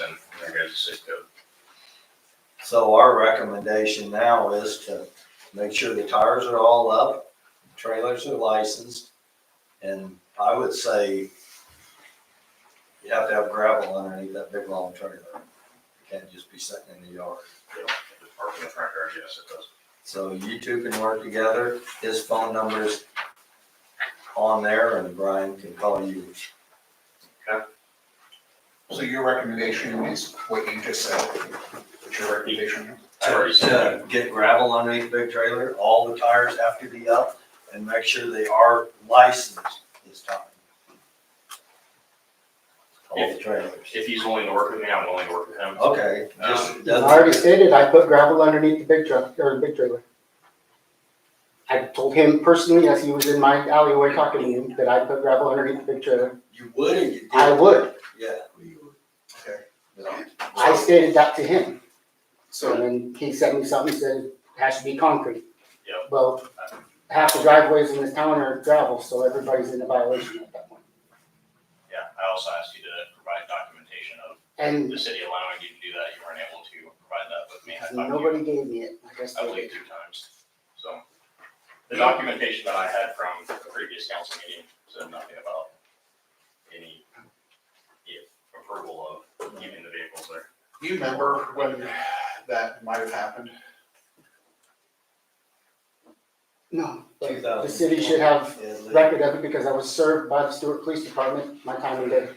and there goes the zip code. So our recommendation now is to make sure the tires are all up, trailers are licensed. And I would say you have to have gravel underneath that big long trailer. It can't just be sitting in the yard. The park in the front yard, yes, it does. So you two can work together. His phone number is on there and Brian can call you. So your recommendation is what you just said, what's your recommendation? It's already said. to get gravel underneath the big trailer, all the tires have to be up and make sure they are licensed this time. All the trailers. If he's willing to work with me, I'm willing to work with him. Okay, Um, just, I already doesn't- stated, I put gravel underneath the big truck, or the big trailer. I told him personally, as he was in my alleyway talking to him, that I put gravel underneath the big trailer. you would and you did. I would, Yeah. Okay. Yeah. I stated that to him, and So, then he sent me something, said, it has to be concrete. Yep. Well, half the driveways in this town are gravel, so everybody's in a violation at that point. Yeah, I also asked you to provide documentation of And the city allowing you to do that. You weren't able to provide that with me. I thought you- nobody gave me it, like I I believe stated. two times, so. The documentation that I had from the previous council meeting said nothing about any yeah, approval of keeping the vehicles there. do you remember when that might have happened? No, Two thousand. the city should have Yeah, Lee. record of it because I was served by the Stewart Police Department my time in there.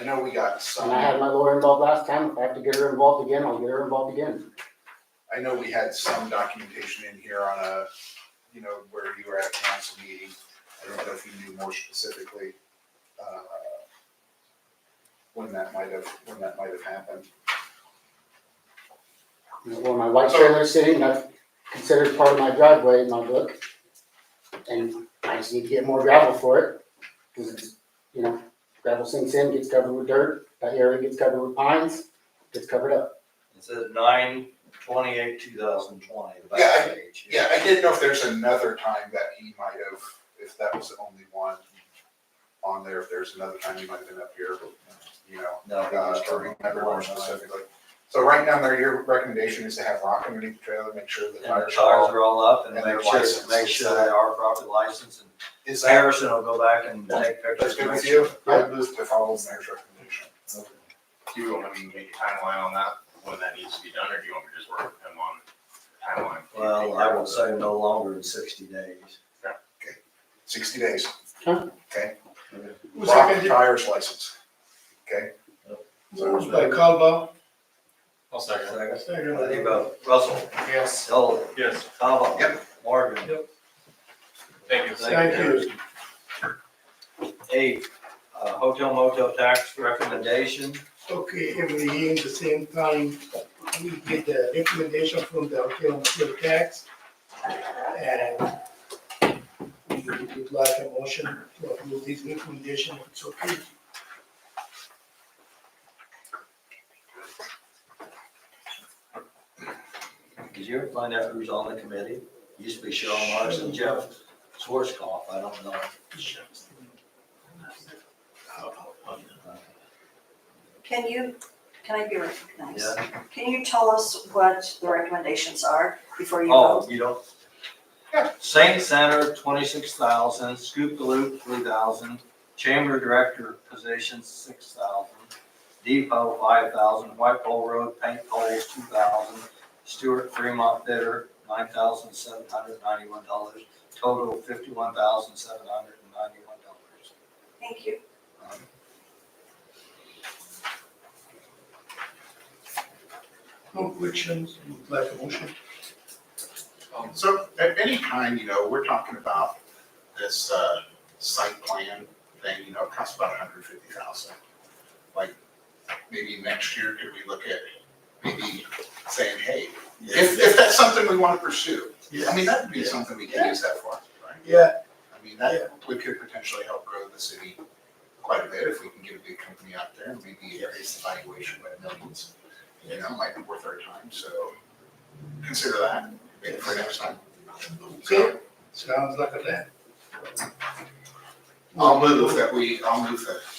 I know we got some, And I had I my lawyer involved last time. If I have to get her involved again, I'll get her involved again. know we had some documentation in here on a, you know, where you were at a council meeting. I don't know if you knew more specifically, uh, when that might have, when that might have happened. You know, Where my white trailer's sitting, that's considered part of my driveway in my book. And I just need to get more gravel for it, because it's, you know, gravel sinks in, gets covered with dirt, that area gets covered with pines, gets covered up. It says nine twenty-eight, two thousand twenty, the Yeah, back I- page. Yeah, I didn't know if there's another time that he might have, if that was the only one on there, if there's another time he might have been up here, but, you know. No, uh, I it was don't remember more one time. specifically. So right down there, your recommendation is to have rock underneath the trailer, make sure the And the tires tires are all. are all up and And they're make sure, licensed. make sure they are properly licensed and Is that, Harrison will go back and take pictures. that's to good make with you? sure. I move to follow the mayor's recommendation. Do you want me to make a timeline on that, when that needs to be done, or do you want me to just work with him on timeline? Well, I would say no longer than sixty days. Sixty days. Huh? Okay. Who Rock seconded? tires license. Who was by Caldwell? I'll Second. Second. How do you vote? Russell, Yes. Hill, Yes, Kava. Yep. Morgan. thank you. Thank you. Eight, uh, hotel motel tax recommendation. Okay, every year, the same time, we get the recommendation from the hotel motel tax. And we would like a motion to approve this recommendation, if it's okay. Did you ever find out who's on the committee? Used to be Cheryl Marks and Jeff Schwarzkopf. I don't know. Can you, can I be recognized? Yeah. Can you tell us what the recommendations are before you Oh, vote? you don't? Saint Center, twenty-six thousand, Scoop the Loop, three thousand, Chamber Director position, six thousand, Depot, five thousand, White Pole Road, Paint Poles, two thousand, Stewart Fremont Bidder, nine thousand seven hundred ninety-one dollars, total fifty-one thousand seven hundred and ninety-one dollars. Thank you. No questions, would like a motion? Um, So at any time, you know, we're talking about this, uh, site plan thing, you know, it costs about a hundred fifty thousand. Like, maybe next year, could we look at maybe saying, hey, if, if that's something we wanna pursue, I mean, that would be something we could use that for, right? Yeah, I mean, that, we could potentially help grow the city quite a bit if we can get a big company out there, and maybe raise the valuation by millions. You know, might be worth our time, so consider that, maybe for next time. okay, sounds like a plan. Um, I'll move that we, I'll move that